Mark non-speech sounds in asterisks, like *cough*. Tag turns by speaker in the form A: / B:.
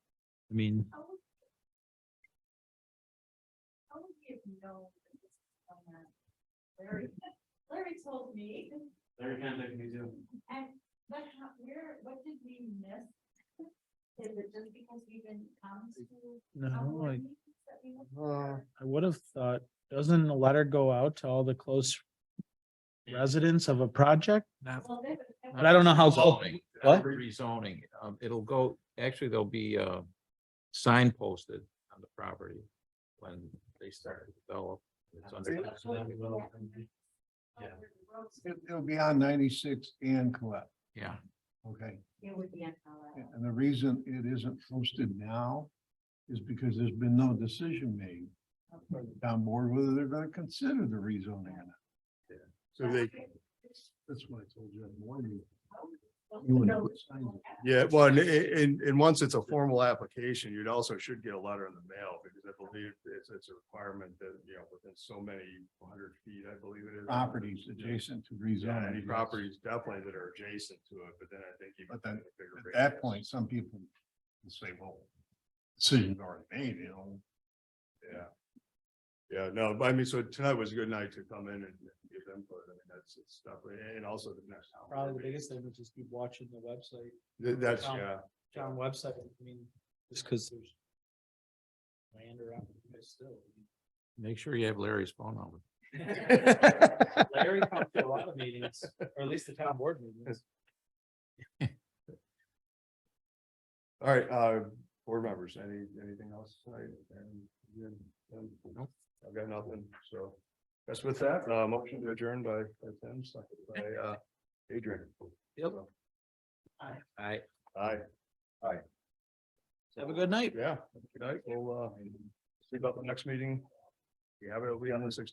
A: I mean,
B: How would you know? Larry, Larry told me,
C: Larry contacted me too.
B: but how, where, what did we miss? Is it just because we didn't come to? our
A: no,
B: board
A: I,
B: meetings that we went to?
A: I would have thought, doesn't a letter go out to all the close residents of a project?
B: Well, they would- they
A: But I don't know how. clo-
D: Zoning,
A: What?
D: rezoning, um, it'll go, actually, there'll be, uh, signposted on the property when they start to develop. It's under-
B: would-
C: Yeah.
E: It, it'll be on ninety-six and Colette,
D: Yeah,
E: okay?
B: It would be on our-
E: And and the reason it isn't posted now is because there's been no decision made by the town board whether they're gonna consider the rezoning or not.
F: So they,
E: That's what I told you in the morning. You wouldn't
B: No.
E: put signs up.
F: yeah,
A: *laughs*
F: well, and, and, and once it's a formal application, you'd also should get a letter in the mail because I believe it's, it's a requirement that, you know, within so many hundred feet, I believe it is.
E: Properties adjacent to
F: Yeah,
E: rezoning.
F: any properties definitely that are adjacent to it, but then I think. you
E: But
F: can
E: then
F: get a bigger
E: At that
F: radius.
E: point, some people will say, well, decision's already made, you know,
F: Yeah. Yeah, no, but I mean, so tonight was a good night to come in and give input. I mean, that's, it's definitely, and also the next. town board
A: Probably the
F: meeting.
A: biggest thing is just keep watching the website,
F: Th- That's,
A: Um,
F: yeah,
A: town website, I mean, just because there's. Land around still.
D: make sure you have Larry's phone number.
A: *laughs* Larry comes to a lot of meetings, or at least the town board meetings.
F: all right, uh, board members, any, anything else tonight? And, you- um,
D: Nope.
F: I've got nothing, so. That's with that, uh, motion to adjourn by, by Tim, second by, uh, Adrian.
D: Yep.
F: So,
D: I,
F: Aye,
A: Have a good night.
F: yeah, good night, we'll, uh, see about the next meeting. We have it, it'll be on the sixteenth.